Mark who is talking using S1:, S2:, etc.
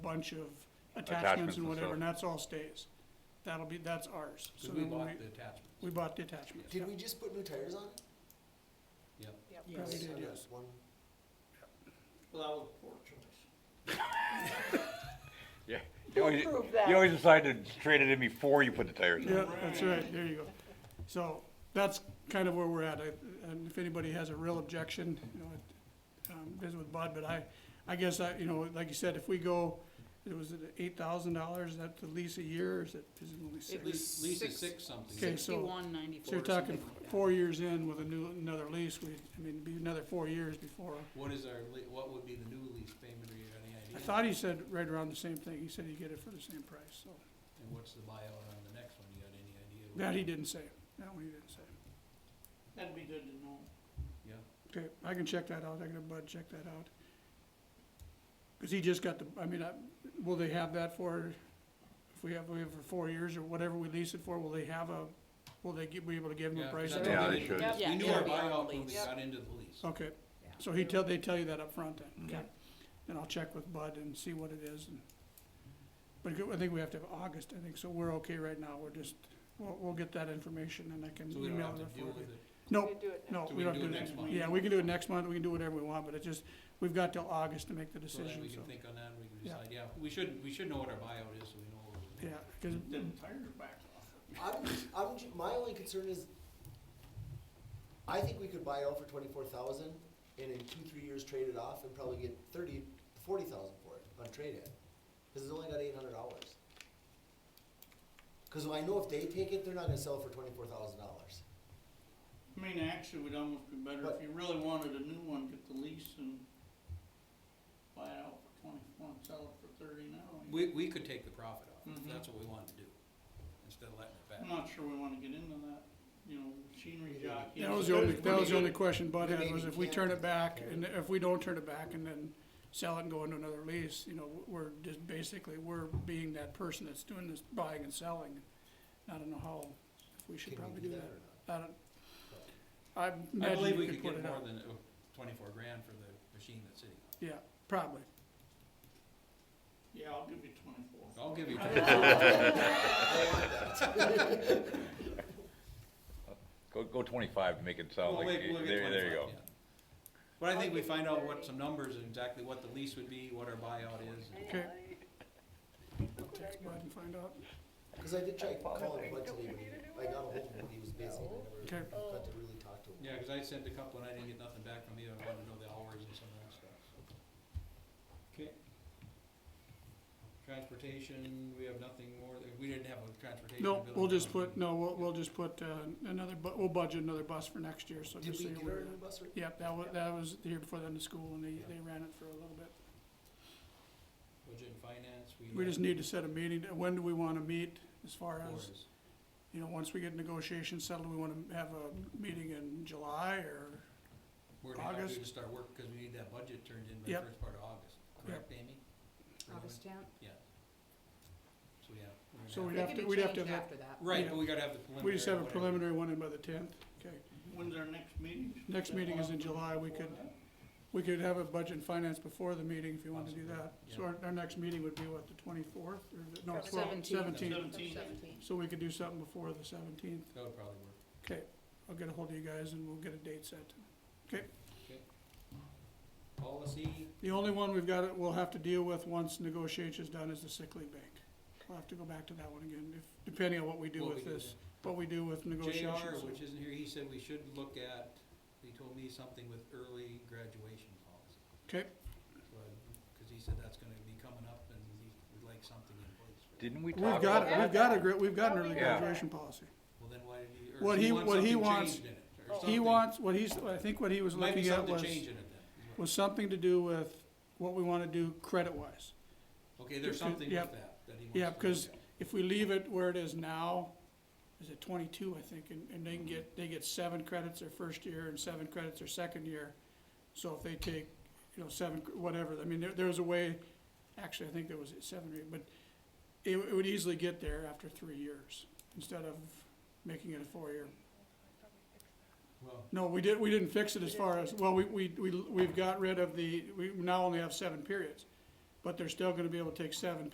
S1: bunch of
S2: Attachments
S1: attachments
S2: and
S1: and whatever,
S2: stuff.
S1: and that's all stays. That'll be, that's ours. So
S3: Because we
S1: then
S3: bought the attachments.
S1: We bought the attachments.
S4: Did we just put new tires on it?
S3: Yep.
S1: Probably did,
S4: On that
S1: yes.
S4: one-
S3: Well, that was poor choice.
S2: Yeah. You always,
S5: Prove
S2: you
S5: that.
S2: always decide to trade it in before you put the tires
S1: Yeah,
S2: on.
S1: that's right, there you go. So that's kind of where we're at, I- and if anybody has a real objection, you know, it, um, visit with Bud, but I, I guess I, you know, like you said, if we go, it was eight thousand dollars, is that the lease a year, or is it, is it only
S3: At
S1: six?
S3: least, at least
S6: Six.
S3: it's six something.
S1: Okay, so-
S6: Sixty-one
S1: So
S6: ninety-four
S1: you're
S6: or something
S1: talking
S6: like that.
S1: four years in with a new, another lease, we, I mean, it'd be another four years before.
S3: What is our, le- what would be the new lease payment, or you have any idea?
S1: I thought he said right around the same thing, he said he'd get it for the same price, so,
S3: And what's the buyout on the next one, you got any idea?
S1: that he didn't say, that one he didn't say.
S6: That'd be good to know.
S3: Yeah,
S1: Okay, I can check that out, I can have Bud check that out. Cause he just got the, I mean, I, will they have that for, if we have, we have for four years or whatever we lease it for, will they have a, will they give, be able to give him
S3: Yeah,
S1: a price?
S3: 'cause I
S1: on
S3: don't
S2: Yeah,
S1: it?
S3: think
S2: they should.
S6: Yep.
S3: We
S6: Yeah,
S3: knew
S6: it'll
S3: our
S6: be on the
S3: buyout when we
S6: lease.
S3: got into the lease.
S1: Okay, so he tell, they tell you that up front then, okay? And I'll check with Bud and see what it is and, but I think we have to have August, I think, so we're okay right now, we're just, we'll, we'll get that information and I can
S3: So we don't
S1: email
S3: have
S1: it
S3: to
S1: for
S3: deal
S1: you.
S3: with it.
S1: No,
S5: do it
S1: no,
S3: So
S1: we don't do it next month. Yeah, we can do it next month, we can do whatever we want, but it just, we've got till August to make the
S3: So then
S1: decision,
S3: we
S1: so.
S3: can think on that, and we can
S1: Yeah.
S3: decide, yeah, we should, we should know what our buyout is, so we know. what we're
S1: Yeah, cause,
S3: doing.
S4: I'm, I'm, ju- my only concern is, I think we could buy out for twenty-four thousand and in two, three years trade it off and probably get thirty, forty thousand for it on trade-in. Cause it's only got eight hundred dollars. Cause I know if they take it, they're not gonna sell it for twenty-four thousand dollars.
S7: I mean, actually, would almost be better if you really wanted a new one, get the lease and buy it out for twenty-four and sell it for thirty now.
S3: We, we could take the profit off, if
S1: Mm-hmm.
S7: Mhm.
S3: that's what we wanted to do, instead of letting it back.
S7: I'm not sure we wanna get into that, you know, machinery jockey.
S1: that was the only, that was the only question Bud
S4: Maybe
S1: had, was
S4: we
S1: if we
S4: can't.
S1: turn it back, and if we don't turn it back and then sell it and go into another lease, you know, we're just basically, we're being that person that's doing this buying and selling. I don't know how, if we should
S4: Can we
S1: probably
S4: do
S1: do
S4: that
S1: that.
S4: or
S1: I don't, I
S3: I believe
S1: imagine
S3: we
S1: you could
S3: could
S1: put
S3: get
S1: it
S3: more
S1: out,
S3: than uh, twenty-four grand for the machine that's sitting on
S1: yeah, probably.
S7: Yeah, I'll give you twenty-four.
S3: it. I'll give you,
S2: Go, go twenty-five to make it sound
S3: we'll
S2: Oh, like,
S3: wait,
S2: you-
S3: we'll get
S2: there, there you go.
S3: twenty-five, yeah. But I think we find out what some numbers, and exactly what the lease would be, what our buyout is.
S1: Okay. I'll text Bud and find out.
S4: Cause I did try calling Bud today, but he- I got ahold of him, but he was busy, and I
S1: Okay.
S4: never got to really talk to him.
S3: Yeah, cause I sent a couple and I didn't get nothing back from you, I wanted to know the hours and some of that stuff, so. Okay. Transportation, we have nothing more, we didn't have a transportation bill.
S1: No, we'll just
S3: down.
S1: put, no, we'll, we'll just put, uh, another, bu- we'll budget another bus for next year, so
S4: Did
S1: just
S4: we
S1: so
S4: get
S1: you
S4: her
S1: aware.
S4: a new bus or?
S1: Yep, that was, that was the year before the end of school, and they, they ran it for a little bit.
S3: Budget and finance, we.
S1: We
S3: have
S1: just need to set a meeting, when do we wanna meet, as far as,
S3: Flores.
S1: you know, once we get negotiations settled, do we wanna have a meeting in July, or?
S3: We're gonna have to
S1: August.
S3: just start work, cause we need that budget turned in by
S1: Yep.
S3: the first part of August, correct, Amy?
S6: August tenth?
S3: Yeah. So, yeah. we're gonna
S1: So
S3: have-
S1: we'd
S6: It
S1: have
S6: could
S1: to,
S6: be
S1: we'd have to have
S6: changed
S1: that,
S6: after that.
S3: Right, but we gotta have the preliminary.
S1: we just have a
S3: whatever.
S1: preliminary one in by the tenth, okay?
S7: When's our next meeting?
S1: Next meeting is in July, we could, we could have a budget and finance before the meeting if you wanted to do that. So our, our next meeting would be what, the twenty-fourth, or, the- no,
S6: Seventeenth.
S1: seventeenth,
S7: Seventeenth.
S1: so we could do something before the seventeenth,
S3: That would probably work.
S1: okay? I'll get a hold of you guys and we'll get a date set.
S3: Policy,
S1: The only one we've got, we'll have to deal with once negotiations done is the sick leave bank. We'll have to go back to that one again, if, depending on what we do
S3: What
S1: with
S3: we do,
S1: this, what we do with negotiations.
S3: JR, which isn't here, he said we should look at, he told me something with early graduation policy.
S1: Okay,
S3: So I- Cause he said that's gonna be coming up and he would like something in place. for that.
S2: Didn't we talk?
S1: we've got,
S2: about
S1: it. we've got a, gr- we've got an early
S2: Yeah.
S1: graduation policy.
S3: Well, then why did he,
S1: What
S3: or he
S1: he-
S3: wants
S1: what he
S3: something
S1: wants-
S3: changed in it, or something.
S1: He wants, what he's, I think what he was
S3: Might be
S1: looking at
S3: something
S1: was,
S3: to change in it then. is what-
S1: was something to do with what we wanna do credit-wise.
S3: Okay, there's
S1: to- to-
S3: something with
S1: yep.
S3: that, that he wants to look at.
S1: Yeah, because if we leave it where it is now, is it twenty-two, I think, and, and they can get, they get seven credits their first year and seven credits their second year. So if they take, you know, seven, cr- whatever, I mean, there, there was a way, actually, I think there was seven or eight, but it, it would easily get there after three years, instead of making it a four-year.
S3: Well,
S1: No, we did, we didn't fix it as far as, well, we, we, we, we've got rid of the, we now only have seven periods. but they're still gonna be able to take seven